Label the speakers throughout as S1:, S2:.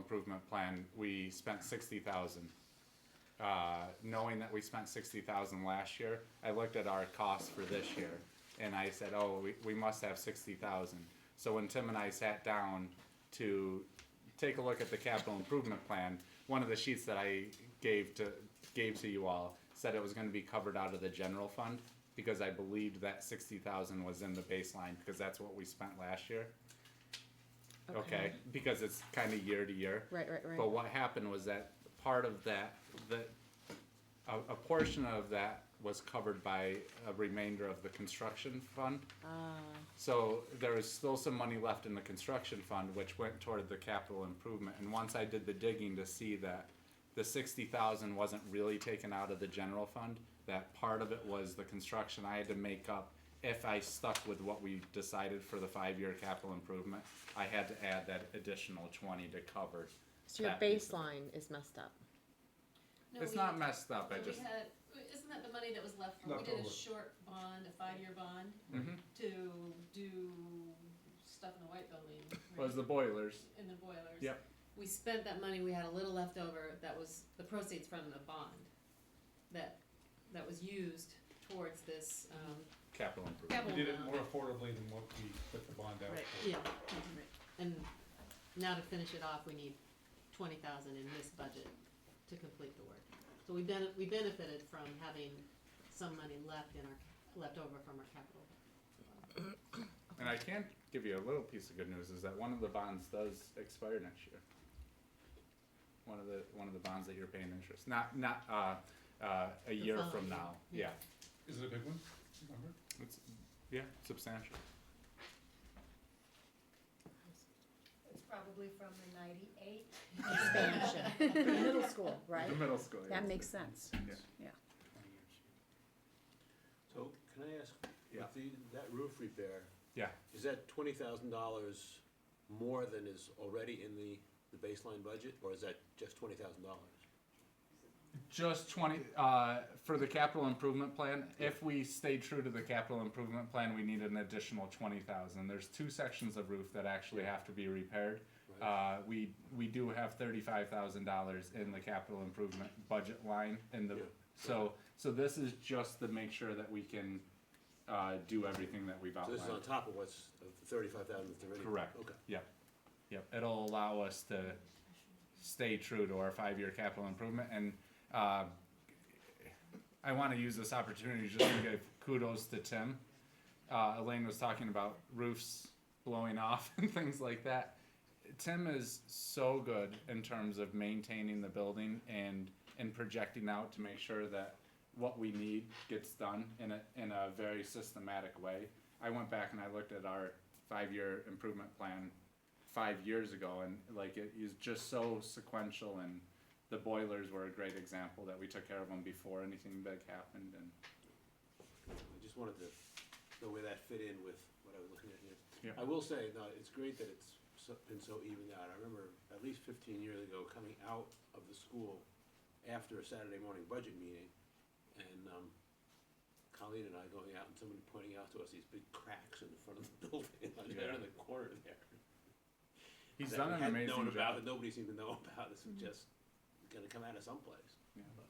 S1: improvement plan, we spent sixty thousand. Uh, knowing that we spent sixty thousand last year, I looked at our costs for this year, and I said, oh, we, we must have sixty thousand. So when Tim and I sat down to take a look at the capital improvement plan, one of the sheets that I gave to, gave to you all said it was gonna be covered out of the general fund, because I believed that sixty thousand was in the baseline, because that's what we spent last year. Okay, because it's kinda year to year.
S2: Right, right, right.
S1: But what happened was that part of that, that, a, a portion of that was covered by a remainder of the construction fund.
S2: Ah.
S1: So there was still some money left in the construction fund, which went toward the capital improvement, and once I did the digging to see that the sixty thousand wasn't really taken out of the general fund, that part of it was the construction I had to make up if I stuck with what we decided for the five-year capital improvement, I had to add that additional twenty to cover.
S2: So your
S1: that piece of it.
S2: baseline is messed up.
S3: No,
S1: It's
S3: we-
S1: not messed up,
S3: no,
S1: I
S3: we
S1: just,
S3: had, isn't that the money that was left from, we
S4: Left
S3: did a
S4: over.
S3: short bond, a five-year bond,
S1: Mhm.
S3: to do stuff in the white building,
S1: was the
S3: right?
S1: boilers,
S3: in the boilers.
S1: Yep.
S3: We spent that money, we had a little left over, that was the proceeds from the bond, that, that was used towards this, um,
S1: capital improvement.
S3: capital
S4: We did it
S3: amount.
S4: more affordably than what we put the bond out
S3: Right,
S4: for.
S3: yeah, and now to finish it off, we need twenty thousand in this budget to complete the work. So we bene- we benefited from having some money left in our, left over from our capital.
S1: And I can give you a little piece of good news is that one of the bonds does expire next year. One of the one of the bonds that you're paying interest, not not uh, uh, a year
S3: following
S1: from
S3: year,
S1: now. Yeah,
S3: yeah.
S4: Is it a big one? Remember?
S1: it's yeah substantial.
S5: It's probably from the ninety-eight.
S2: Expansion, middle school, right?
S1: The middle school.
S2: That makes sense.
S4: Twenty
S1: Yeah.
S4: years.
S6: So can I ask,
S1: Yeah.
S6: with the, that roof repair?
S1: Yeah.
S6: Is that twenty thousand dollars more than is already in the, the baseline budget, or is that just twenty thousand dollars?
S1: Just twenty uh, for the capital improvement plan. If we stay true to the capital improvement plan, we need an additional twenty thousand. There's two sections of roof that actually have to be repaired. Uh, we we do have thirty-five thousand dollars in the capital improvement budget line in the
S6: Yeah.
S1: so so this is just to make sure that we can uh, do everything that we've
S6: So
S1: outlined.
S6: this is on top of what's, of the thirty-five thousand that's already?
S1: Correct.
S6: Okay.
S1: Yep, yep. It'll allow us to stay true to our five-year capital improvement, and uh, I want to use this opportunity just to give kudos to Tim. Uh, Elaine was talking about roofs blowing off and things like that. Tim is so good in terms of maintaining the building and and projecting out to make sure that what we need gets done in a in a very systematic way. I went back and I looked at our five year improvement plan five years ago and like it is just so sequential and the boilers were a great example that we took care of them before anything big happened and
S6: I just wanted to know where that fit in with what I was looking at here.
S1: Yeah.
S6: I will say, no, it's great that it's so- been so evened out. I remember at least fifteen years ago, coming out of the school after a Saturday morning budget meeting, and, um, Colleen and I going out and somebody pointing out to us these big cracks in the front of the building, like there in the corner there.
S1: he's
S6: that
S1: done
S6: we
S1: an
S6: hadn't
S1: amazing
S6: known
S1: job.
S6: about, That nobody seemed to know about, this was just gonna come out of someplace.
S1: Yeah.
S6: But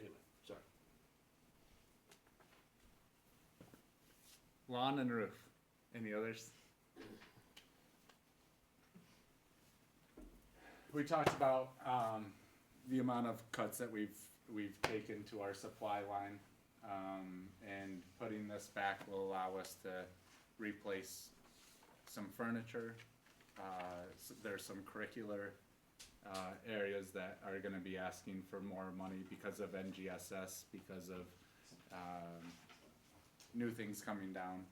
S6: Anyway, sorry.
S1: Lawn and roof. Any others? We talked about um, the amount of cuts that we've we've taken to our supply line, um, and putting this back will allow us to replace some furniture. Uh, s- there's some curricular uh, areas that are going to be asking for more money because of NGSS, because of um, new things coming down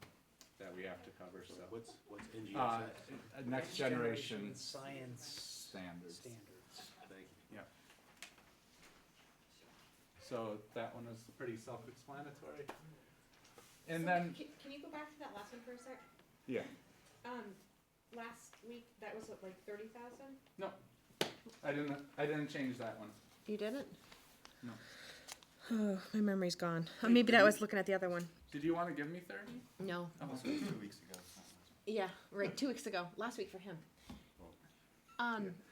S1: that we have to cover,
S6: So
S1: so.
S6: what's, what's
S1: Uh,
S6: NGSS?
S1: next generation
S7: Science
S1: standards.
S7: standards.
S6: Thank you.
S1: So that one was pretty self-explanatory. And then,
S8: Can, can you go back to that last one for a sec?
S1: yeah,
S8: Um, last week, that was what, like thirty thousand?
S1: no, I didn't, I didn't change that one.
S2: You didn't?
S1: No.
S8: Oh, my memory's gone. Oh, maybe that was looking at the other one.
S1: Did you wanna give me thirty?
S2: No.
S4: Two weeks ago.
S2: Yeah, right, two weeks ago, last week for him. Um,